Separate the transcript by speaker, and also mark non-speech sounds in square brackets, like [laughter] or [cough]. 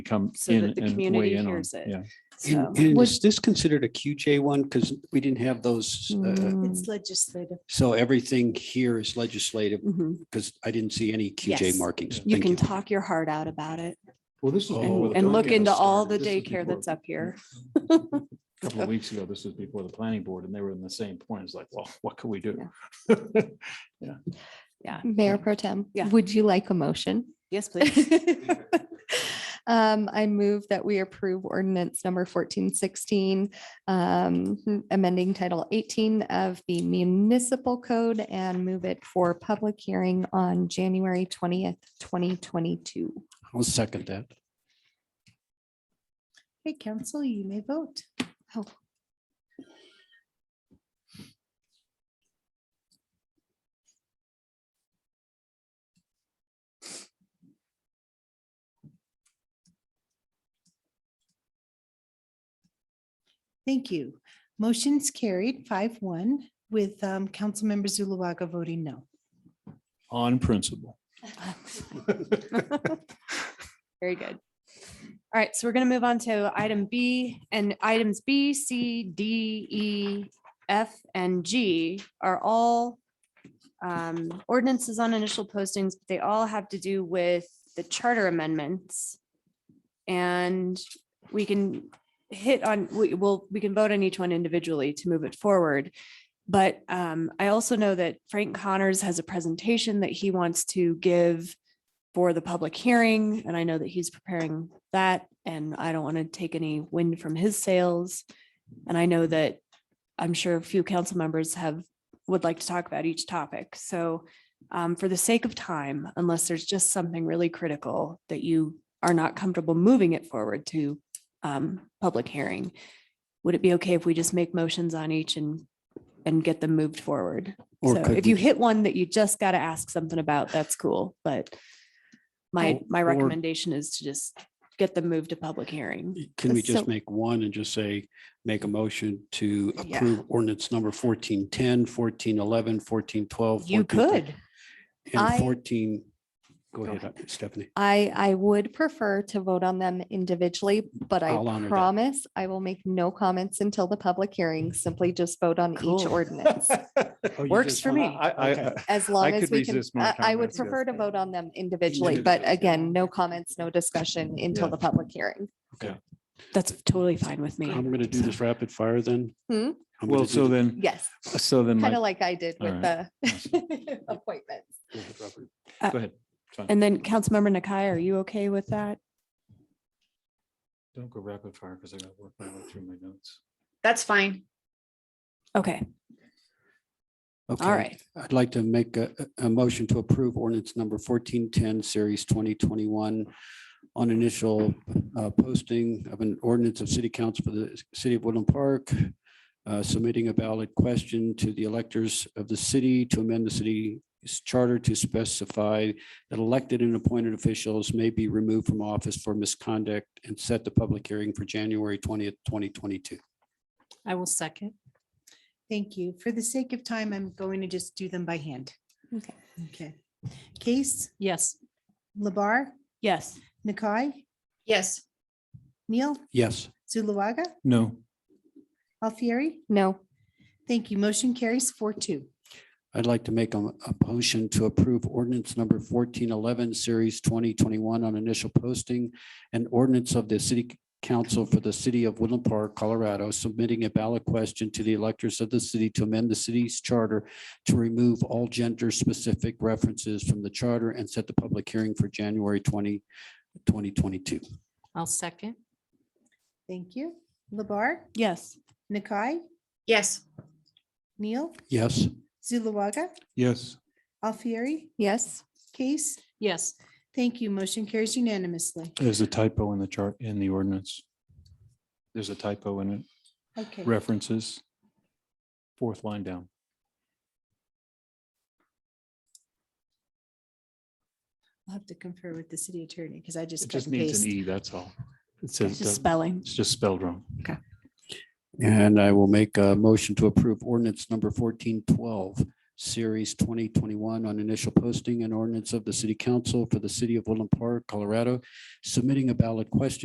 Speaker 1: come
Speaker 2: so
Speaker 1: in
Speaker 2: that the
Speaker 1: and
Speaker 2: community
Speaker 1: weigh in on.
Speaker 2: hears it.
Speaker 1: Yeah,
Speaker 2: So.
Speaker 3: And
Speaker 4: Would-
Speaker 3: is this considered a QJ one? Because we didn't have those.
Speaker 2: Mm.
Speaker 3: uh,
Speaker 4: It's legislative.
Speaker 3: So everything here is legislative
Speaker 2: Mhm.
Speaker 3: because I didn't see any QJ
Speaker 2: Yes.
Speaker 3: markings.
Speaker 2: You
Speaker 3: Thank
Speaker 2: can talk your heart out about it
Speaker 5: Well, this is.
Speaker 3: Oh,
Speaker 5: before
Speaker 2: and
Speaker 5: the
Speaker 2: and look
Speaker 5: daycare
Speaker 2: into all the
Speaker 5: started. This is
Speaker 2: daycare
Speaker 5: before-
Speaker 2: that's up here.
Speaker 1: a couple of weeks ago, this was before the planning board and they were in the same point. It's like, well, what can we do?
Speaker 4: Mayor Pro Tem,
Speaker 2: Yeah.
Speaker 4: would you like a motion?
Speaker 6: Mm-hmm.
Speaker 2: Yes, please.
Speaker 4: [laughs] Um, I move that we approve ordinance number fourteen sixteen, um, amending title eighteen of the municipal code and move it for public hearing on January twentieth, twenty twenty-two.
Speaker 3: you. I'll second that.
Speaker 6: Hey, council, you may vote. [laughs] Thank you. Motion's carried five one with um, Councilmember Zuluaga voting no.
Speaker 1: [laughs] On
Speaker 2: [laughs]
Speaker 1: principle.
Speaker 2: Very good. All right, so we're going to move on to item B and items B, C, D, E, F, and G are all um, ordinances on initial postings. but They all have to do with the charter amendments. And we can hit on, we will, we can vote on each one individually to move it forward. But um, I also know that Frank Connors has a presentation that he wants to give for the public hearing, and I know that he's preparing that, and I don't want to take any wind from his sails. And I know that I'm sure a few council members have, would like to talk about each topic. So um, for the sake of time, unless there's just something really critical that you are not comfortable moving it forward to um, public hearing, would it be okay if we just make motions on each and, and get them moved forward?
Speaker 3: Or
Speaker 2: So
Speaker 3: could
Speaker 2: if
Speaker 3: we-
Speaker 2: you hit one that you just got to ask something about, that's cool, but my,
Speaker 1: Oh,
Speaker 2: my
Speaker 1: or-
Speaker 2: recommendation is to just get them moved to public hearing.
Speaker 3: Can we
Speaker 4: So-
Speaker 3: just make one and just say, make a motion to
Speaker 2: Yeah.
Speaker 3: approve ordinance number 1410, 1411, 1412?
Speaker 2: You could.
Speaker 4: I-
Speaker 3: And 14, go
Speaker 2: Go
Speaker 3: ahead, uh, Stephanie.
Speaker 4: I, I would prefer to vote on them individually, but I
Speaker 3: I'll honor that.
Speaker 4: promise I will make no comments until the public hearing. Simply just vote on each
Speaker 1: Cool.
Speaker 3: [laughs]
Speaker 4: ordinance.
Speaker 1: Oh,
Speaker 2: Works for me.
Speaker 1: I, I,
Speaker 4: As long as
Speaker 1: could
Speaker 4: we can,
Speaker 1: resist more
Speaker 4: I I would
Speaker 1: comments, yes.
Speaker 4: prefer to vote on them individually, but again, no comments, no discussion until
Speaker 1: Yeah.
Speaker 4: the public hearing.
Speaker 2: That's totally fine with me.
Speaker 3: I'm going to do this rapid fire then.
Speaker 4: Hmm?
Speaker 3: I'm gonna
Speaker 1: well,
Speaker 3: do
Speaker 1: so
Speaker 3: the-
Speaker 1: then,
Speaker 4: Yes,
Speaker 1: so then,
Speaker 4: kind
Speaker 1: my-
Speaker 4: of like I did with the [laughs] appointments.
Speaker 1: go ahead. Fine.
Speaker 2: And then Councilmember Nakai, are you okay with that?
Speaker 1: Don't go rapid fire because I gotta work my way through my notes.
Speaker 7: That's fine.
Speaker 2: Okay,
Speaker 3: Okay.
Speaker 2: all right.
Speaker 3: I'd like to make a, a a motion to approve ordinance number fourteen ten, series twenty twenty-one on initial uh, posting of an ordinance of city council for the city of Woodland Park, uh, submitting a valid question to the electors of the city to amend the city's charter to specify that elected and appointed officials may be removed from office for misconduct and set the public hearing for January twentieth, twenty twenty-two.
Speaker 7: I will second.
Speaker 6: Thank you. For the sake of time, I'm going to just do them by hand.
Speaker 4: Okay.
Speaker 6: Okay. Case,
Speaker 7: Yes.
Speaker 6: Labar,
Speaker 2: Yes.
Speaker 6: Nakai,
Speaker 7: Yes.
Speaker 6: Neil,
Speaker 3: Yes.
Speaker 6: Zuluaga,
Speaker 1: No,
Speaker 6: Alfieri.
Speaker 4: No,
Speaker 6: Thank you. Motion carries four two.
Speaker 3: I'd like to make a, a motion to approve ordinance number fourteen eleven, series twenty twenty-one on initial posting and ordinance of the city council for the city of Woodland Park, Colorado, submitting a ballot question to the electors of the city to amend the city's charter to remove all gender-specific references from the charter and set the public hearing for January 20, 2022.
Speaker 7: I'll second.
Speaker 6: Thank you. Labar,
Speaker 2: Yes.
Speaker 6: Nakai,
Speaker 7: Yes.
Speaker 6: Neil,
Speaker 3: Yes,
Speaker 6: Zuluaga,
Speaker 1: yes,
Speaker 6: Alfieri,
Speaker 4: yes,
Speaker 6: Case.
Speaker 7: Yes.
Speaker 6: Thank you. Motion carries unanimously.
Speaker 1: there's a typo in the chart, in the ordinance. There's a typo in it,
Speaker 6: Okay.
Speaker 1: references. Fourth line down.
Speaker 6: I'll have to confer with the city attorney because I just.
Speaker 1: It
Speaker 6: cut
Speaker 1: just
Speaker 6: and
Speaker 1: needs an
Speaker 6: paste.
Speaker 1: E, that's all. It
Speaker 2: It's
Speaker 1: says,
Speaker 2: just
Speaker 1: doesn't-
Speaker 2: spelling.
Speaker 1: it's just spelled wrong.
Speaker 3: and I will make a motion to approve ordinance number fourteen twelve, Series twenty twenty-one on initial posting and ordinance of the city council for the city of Woodland Park, Colorado, submitting a ballot question